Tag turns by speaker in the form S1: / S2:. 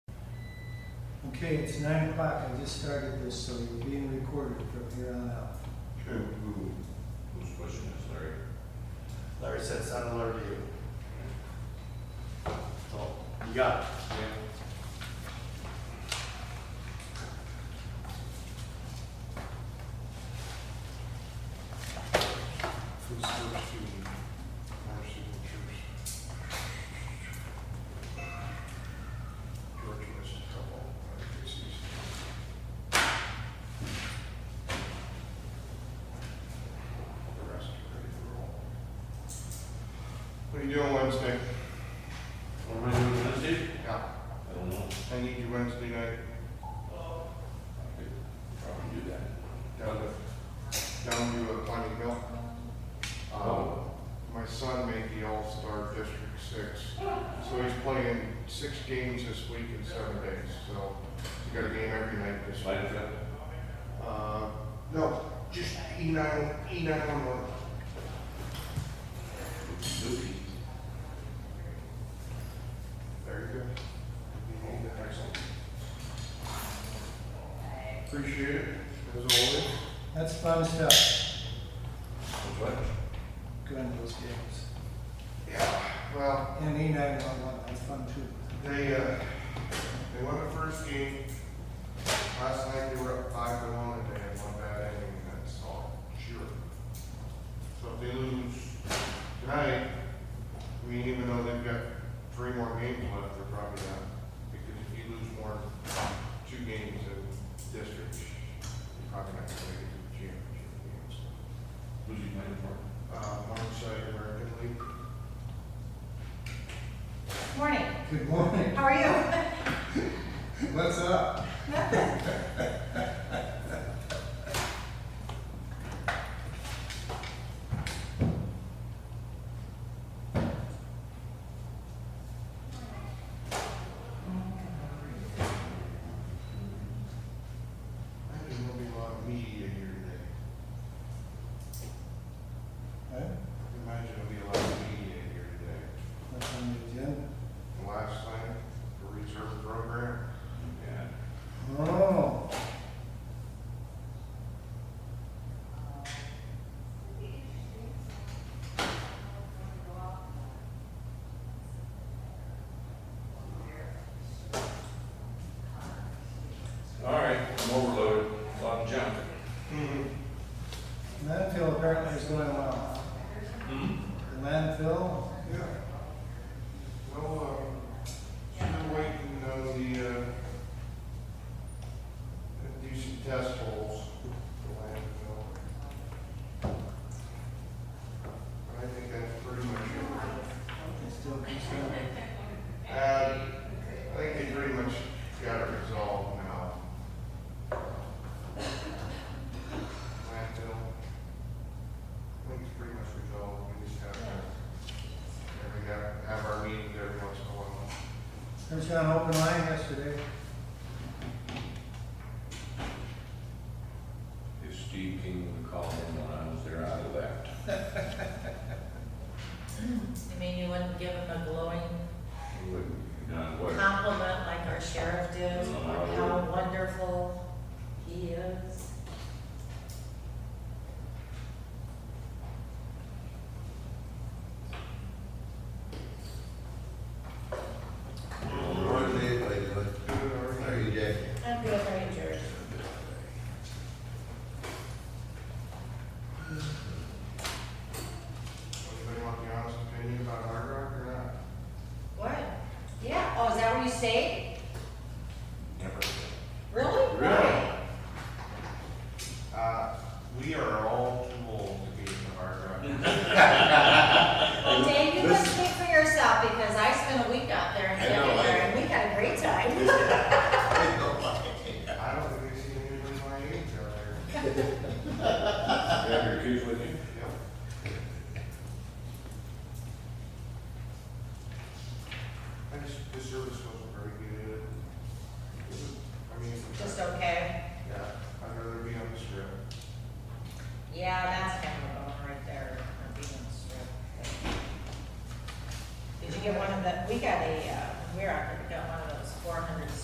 S1: Okay, it's nine o'clock, I just started this, so you're being recorded from here on out.
S2: Who, who, whose question is Larry?
S3: Larry said it sounded alert to you. So, you got it.
S4: Who's first to our signatures? George has a couple, I guess he's. The rest are ready to roll. What are you doing Wednesday?
S3: What am I doing Wednesday?
S4: Yeah.
S3: I don't know.
S4: I need you Wednesday night
S2: I could probably do that.
S4: down to, down to uh, Pine Hill.
S3: Oh.
S2: Um,
S4: My son made the All-Star District Six, so he's playing six games this week in seven days, so he got a game every night this week.
S2: slide it up.
S4: Uh, no, just E nine, E nine one one.
S2: Loopy.
S4: Very good. Excellent. Appreciate it, as always.
S1: That's fun stuff,
S2: What's what?
S1: going to those games.
S4: Yeah, well,
S1: And E nine one one, that's fun too.
S4: They, uh, they won the first game. Last night they were up five to one and they had one bad inning and that's all. Sure. So if they lose tonight, I mean, even though they've got three more games left, they're probably not. Because if you lose more, than two games in district, you're probably not gonna make it to the championship games.
S2: Who's he playing for?
S4: Uh, one side American League,
S5: Morning,
S1: Good morning,
S5: how are you?
S1: what's up?
S4: I think there'll be a lot of media here today.
S1: Huh?
S4: Imagine there'll be a lot of media here today.
S1: What's on the agenda?
S4: The Last thing, the reserve program,
S2: Yeah.
S1: Oh,
S2: All right, I'm overloaded, a lot of junk.
S1: landfill apparently is going well. The landfill,
S4: Yeah. Well, um, still waiting on the, uh, do some test holes for landfill. But I think that's pretty much it.
S1: it's still concerned.
S4: Uh, I think they pretty much got it resolved now. Landfill. I think it's pretty much resolved, we just have to, and we got, have our meetings every once in a while.
S1: There's an open line yesterday.
S2: If Steve King would call him when I was there, I'd have left.
S6: I mean, you wouldn't give him a glowing
S2: He wouldn't, you know, what?
S6: compliment like our sheriff did,
S2: No, I
S6: like how wonderful he is.
S3: What day did I do it?
S4: Good, all
S3: How
S4: right.
S3: are you, Jack?
S6: I'm good, Ranger.
S4: Anybody want the honest opinion about Hard Rock or not?
S6: What? Yeah, oh, is that where you stayed?
S4: Never.
S2: Really?
S6: Really? Why?
S4: Uh, we are all too old to be in the Hard Rock.
S6: Well, Dave, you must speak for yourself because I spent a week out there in
S3: I know, I-
S6: January and we had a great time.
S4: I don't think they see anybody my age out there.
S2: You have your keys with you?
S4: Yep. I just, the service wasn't very good. It was- I mean,
S6: Just okay.
S4: yeah, I'd rather be on the strip.
S6: Yeah, that's kind of a bummer right there, or being stripped. Did you get one of the, we got a, uh, we were out there